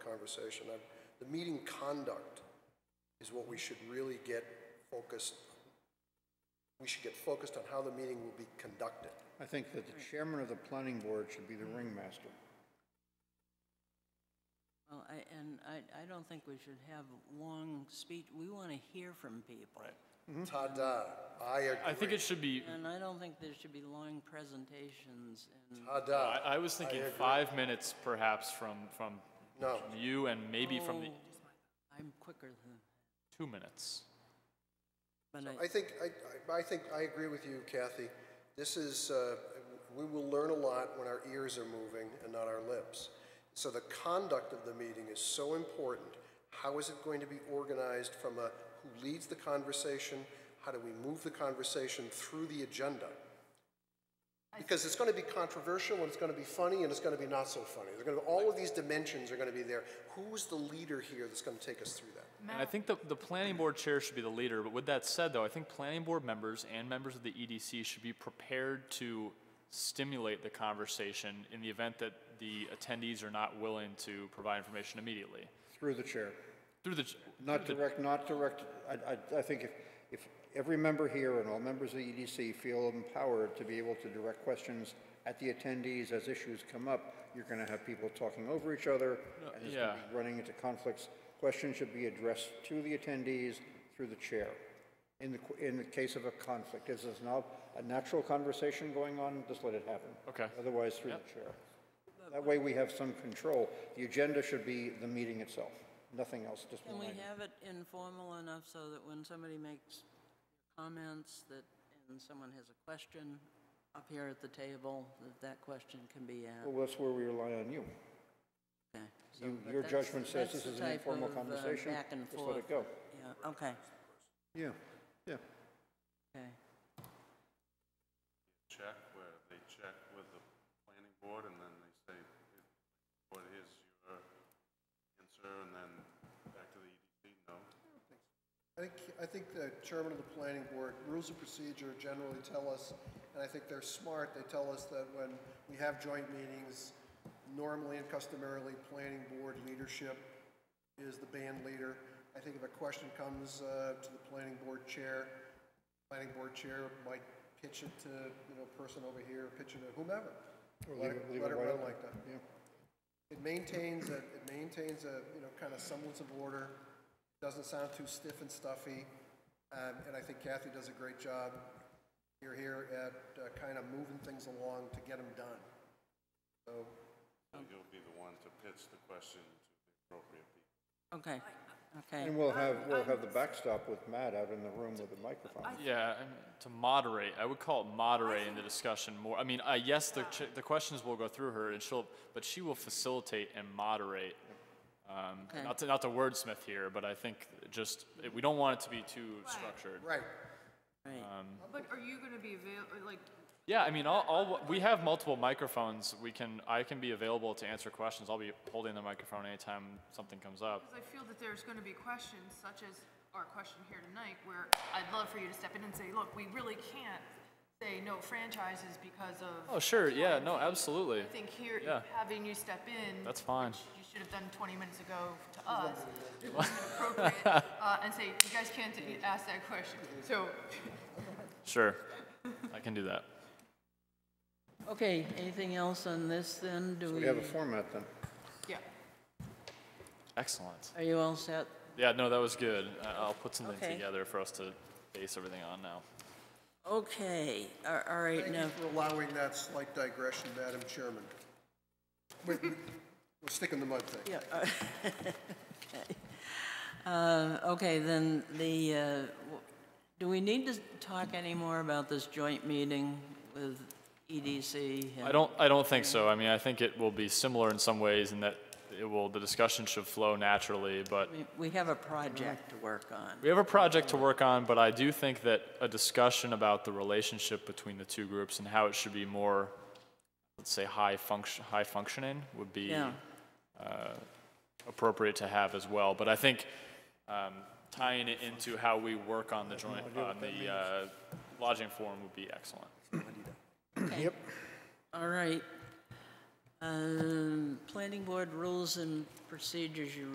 conversation. I'm- The meeting conduct is what we should really get focused, we should get focused on how the meeting will be conducted. I think that the chairman of the planning board should be the ringmaster. Well, I, and I, I don't think we should have long speech, we want to hear from people. Ta-da, I I think agree. it should be, And I don't think there should be long presentations and. Ta-da. I, uh, I was thinking agree. five minutes perhaps from, from No, you and maybe from the, Oh, I'm quicker than, two minutes. but I, I think, I, I- I think, I agree with you, Kathy. This is, uh, we will learn a lot when our ears are moving and not our lips. So the conduct of the meeting is so important. How is it going to be organized from a, who leads the conversation? How do we move the conversation through the agenda? Because it's gonna be controversial, and it's gonna be funny, and it's gonna be not so funny. There's gonna, all of these dimensions are gonna be there. Who's the leader here that's gonna take us through that? And I think the, the planning board chair should be the leader, but with that said, though, I think planning board members and members of the EDC should be prepared to stimulate the conversation in the event that the attendees are not willing to provide information immediately. Through the chair. Through the, Not direct, not direct, I, I, I think if, if every member here and all members of the EDC feel empowered to be able to direct questions at the attendees as issues come up, you're gonna have people talking over each other, and it's gonna yeah. be running into conflicts. Questions should be addressed to the attendees through the chair. In the, qu- in the case of a conflict, is there's now a natural conversation going on, just let it happen. Okay. Otherwise, through the chair. That way we have some control. The agenda should be the meeting itself, nothing else, just can one we item. have it informal enough so that when somebody makes comments that, and someone has a question up here at the table, that that question can be asked? Well, that's where we rely on you. Okay, so- You- but Your that's- judgment says this that's the is an type informal of, uh, conversation. Back and Just forth. let it go. Yeah, okay, Yeah, yeah. okay. check where they check with the planning board and then they say, what is your answer? And then back to the EDC, no. I think, I think the chairman of the planning board, rules of procedure generally tell us, and I think they're smart, they tell us that when we have joint meetings, normally and customarily, planning board leadership is the band leader. I think if a question comes uh, to the planning board chair, planning board chair might pitch it to, you know, person over here, pitch it to whomever. Or Let leave it- it- leave let it it wide run open. like that. Yeah. It maintains a, it maintains a, you know, kind of semblance of order, doesn't sound too stiff and stuffy, um, and I think Kathy does a great job here, here at uh, kind of moving things along to get them done. So, So you'll be the one to pitch the question to the appropriate people. Okay, okay. And we'll have, we'll have the backstop with Matt out in the room with the microphone. yeah, I mean, to moderate, I would call it moderating the discussion more. I mean, uh, yes, the, ch- the questions will go through her and she'll, but she will facilitate and moderate. Um, Okay. not to, not to wordsmith here, but I think just, we don't want it to be too structured. right, Right. But are you gonna be avail, or like, Yeah, I mean, I'll, I'll, we have multiple microphones. We can, I can be available to answer questions. I'll be holding the microphone anytime something comes up. because I feel that there's gonna be questions such as our question here tonight, where I'd love for you to step in and say, look, we really can't say no franchises because of. Oh, sure. Yeah, no, absolutely. I think here, yeah. having you step in. That's fine. which You should have done twenty minutes ago to us, it wasn't appropriate, uh, and say, you guys can't d- ask that question, so. Sure. I can do that. Okay, anything else on this then? Do We we, have a format then. Yeah. Excellent. are you all set? Yeah, no, that was good. I- I'll put something Okay. together for us to base everything on now. Okay, a- all right, thank you now, for allowing that slight digression, Madam Chairman. We're we're sticking the mud thing. yeah. uh, Uh, okay, then the, uh, w- do we need to talk any more about this joint meeting with E EDC? I don't, I don't think so. I mean, I think it will be similar in some ways in that it will, the discussion should flow naturally, but We- We have a project to work on. We have a project to work on, but I do think that a discussion about the relationship between the two groups and how it should be more, let's say, high function, high functioning would be Yeah. appropriate to have as well. But I think um, tying it into how we work on the joint, on the uh, lodging forum would be excellent. All right. Um, Planning Board Rules and Procedures, you